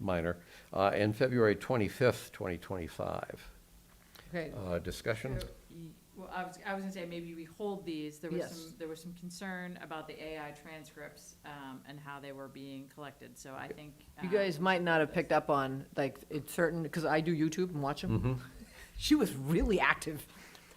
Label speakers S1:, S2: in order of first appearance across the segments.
S1: minor, uh, and February 25th, 2025.
S2: Okay,
S1: Uh, Discussion?
S3: Well, I was, I was gonna say, maybe we hold these, there was
S2: Yes.
S3: some, there was some concern about the AI transcripts, um, and how they were being collected, so I think.
S2: you
S3: um,
S2: guys might not have picked up on, like, it's certain, because I do YouTube and watch
S1: Mm-hmm.
S2: them. She was really active.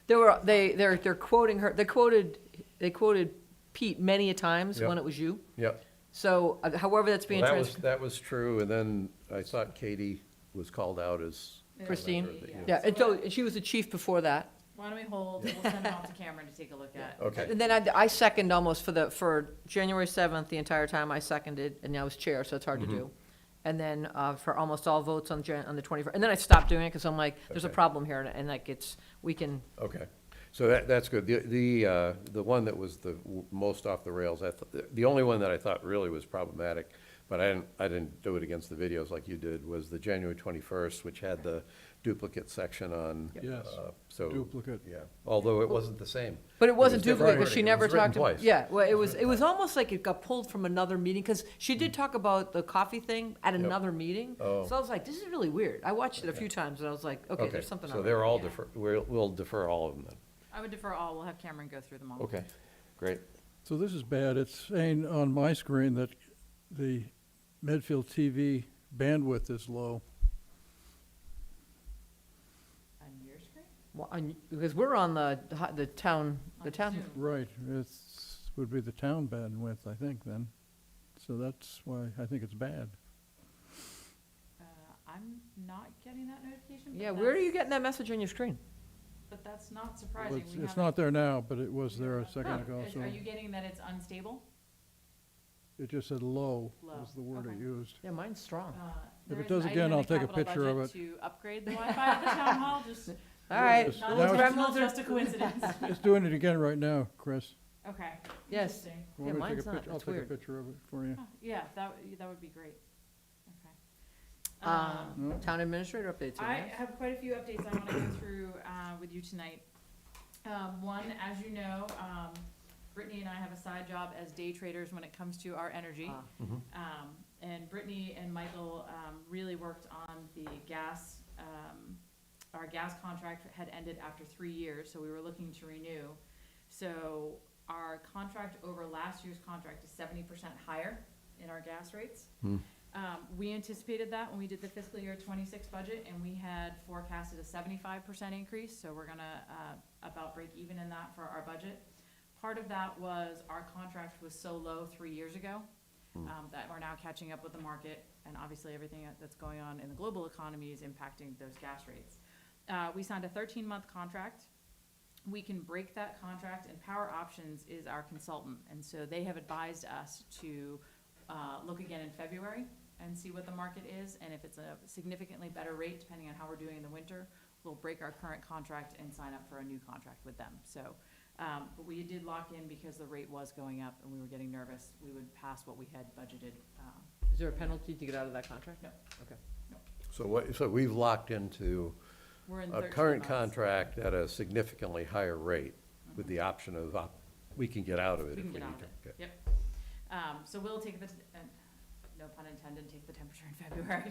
S2: There were, they, they're, they're quoting her, they quoted, they quoted Pete many a times
S1: Yep.
S2: when it was you.
S1: Yep.
S2: So uh, however that's being
S1: Well, that was,
S2: transcribed.
S1: that was true, and then I thought Katie was called out as.
S3: Yeah.
S2: Christine?
S3: Yeah.
S2: Yeah, and so she was the chief before that.
S3: Why don't we hold, we'll send them off to Cameron to take a look at.
S1: Okay,
S2: And then I, I second almost for the, for January seventh, the entire time I seconded, and I was chair, so it's hard to
S1: Mm-hmm.
S2: do. And then, uh, for almost all votes on Jan, on the twenty-first, and then I stopped doing it, because I'm like, there's a
S1: Okay.
S2: problem here, and- and like, it's, we can,
S1: okay. So that, that's good. The, the, uh, the one that was the w- most off the rails, I th- the only one that I thought really was problematic, but I didn't, I didn't do it against the videos like you did, was the January 21st, which had the duplicate section on.
S4: Yes,
S1: uh, So.
S4: duplicate.
S1: Yeah, although it wasn't the same.
S2: But it wasn't
S1: different
S2: duplicate, because
S1: wording.
S2: she
S1: It
S2: never
S1: was written
S2: talked, ab-
S1: twice.
S2: yeah, well, it was, it was almost like it got pulled from another meeting, because she did talk about the coffee thing at another meeting.
S1: Oh.
S2: So I was like, this is really weird. I watched it a few times, and I was like, okay, there's something
S1: So
S2: on
S1: they're all
S3: yeah.
S1: defer, we'll, we'll defer all of them then.
S3: I would defer all, we'll have Cameron go through them all.
S1: Okay, great.
S4: So this is bad. It's saying on my screen that the Medfield TV bandwidth is low.
S3: On your screen?
S2: Well, on- Because we're on the, the town, the
S3: On
S2: town,
S3: Zoom.
S4: Right, it's, would be the town bandwidth, I think, then. So that's why I think it's bad.
S3: Uh, I'm not getting that notification. but
S2: yeah, where are
S3: that's-
S2: you getting that message on your screen?
S3: But that's not surprising.
S4: It's,
S3: We
S4: it's
S3: haven't-
S4: not there now, but it was there a
S3: Huh.
S4: second ago,
S3: Is-
S4: so
S3: Are you getting that it's unstable?
S4: it just said low
S3: Low,
S4: was the word it
S3: okay.
S4: used.
S2: Yeah, mine's strong.
S3: Uh,
S4: If
S3: there
S4: it
S3: is an
S4: does
S3: item
S4: again,
S3: in the
S4: I'll take a
S3: capital
S4: picture of
S3: budget To upgrade the Wi-Fi at the town hall, just.
S2: All right,
S4: Yes,
S3: Not
S4: that was-
S3: intentional, just a coincidence.
S4: It's doing it again right now, Chris.
S3: Okay.
S2: Yes.
S3: interesting.
S4: You want
S2: Yeah,
S4: me to
S2: mine's
S4: take a
S2: not.
S4: picture?
S2: That's
S4: I'll
S2: weird.
S4: take a picture of it for you.
S3: Huh, Yeah, that, would- that would be great. Okay. Um,
S2: um, town administrator updates.
S3: I
S2: right?
S3: have quite a few updates I wanna go through, uh, with you tonight. Um, one, as you know, um, Brittany and I have a side job as day traders when it comes to our energy.
S2: Ah.
S3: Um, and Brittany and Michael, um, really worked on the gas, um, our gas contract had ended after three years, so we were looking to renew. So our contract over last year's contract is seventy percent higher in our gas rates.
S1: Hmm.
S3: Um, we anticipated that when we did the fiscal year twenty-six budget, and we had forecasted a seventy-five percent increase, so we're gonna, uh, about break even in that for our budget. Part of that was our contract was so low three years ago, um, that we're now catching up with the market, and obviously everything that's going on in the global economy is impacting those gas rates. Uh, we signed a thirteen-month contract, we can break that contract, and Power Options is our consultant, and so they have advised us to uh, look again in February and see what the market is, and if it's a significantly better rate, depending on how we're doing in the winter, we'll break our current contract and sign up for a new contract with them, so. um, But we did lock in because the rate was going up, and we were getting nervous, we would pass what we had budgeted. um,
S2: Is there a penalty to get out of that contract?
S3: No.
S2: Okay.
S1: So what, so we've locked into
S3: We're in
S1: a
S3: 13
S1: current
S3: months.
S1: contract at a significantly higher rate with the option of, op- we can get out of it
S3: We
S1: if we need
S3: can
S1: to.
S3: get out of it,
S1: Okay.
S3: yep. Um, so we'll take the, uh, no pun intended, take the temperature in February.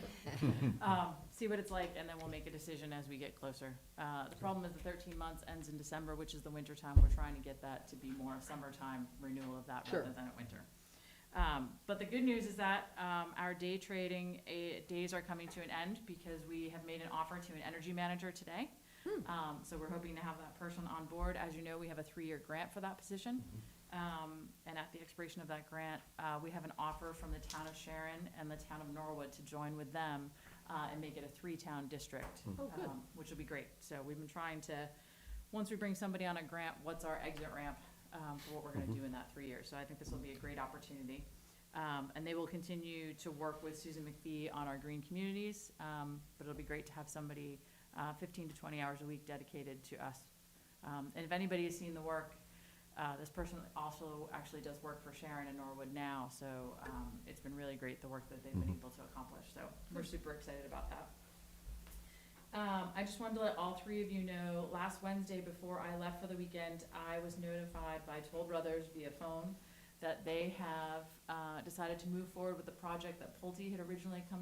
S3: Um, see what it's like, and then we'll make a decision as we get closer. Uh, the problem is the thirteen months ends in December, which is the winter time. We're trying to get that to be more a summertime renewal of that
S2: Sure.
S3: rather than a winter. Um, but the good news is that, um, our day trading, eh, days are coming to an end because we have made an offer to an energy manager today.
S1: Hmm.
S3: Um, so we're hoping to have that person on board. As you know, we have a three-year grant for that position.
S1: Mm-hmm.
S3: Um, and at the expiration of that grant, uh, we have an offer from the town of Sharon and the town of Norwood to join with them, uh, and make it a three-town district.
S2: Oh, good.
S3: um, Which would be great. So we've been trying to, once we bring somebody on a grant, what's our exit ramp, um, for what we're
S2: Mm-hmm.
S3: gonna do in that three years? So I think this will be a great opportunity. Um, and they will continue to work with Susan McPhee on our green communities, um, but it'll be great to have somebody, uh, fifteen to twenty hours a week dedicated to us. Um, and if anybody has seen the work, uh, this person also actually does work for Sharon in Norwood now, so, um, it's been really great, the work that they've been able to accomplish, so we're super excited about that. Um, I just wanted to let all three of you know, last Wednesday before I left for the weekend, I was notified by Toll Brothers via phone that they have, uh, decided to move forward with the project that Pulte had originally come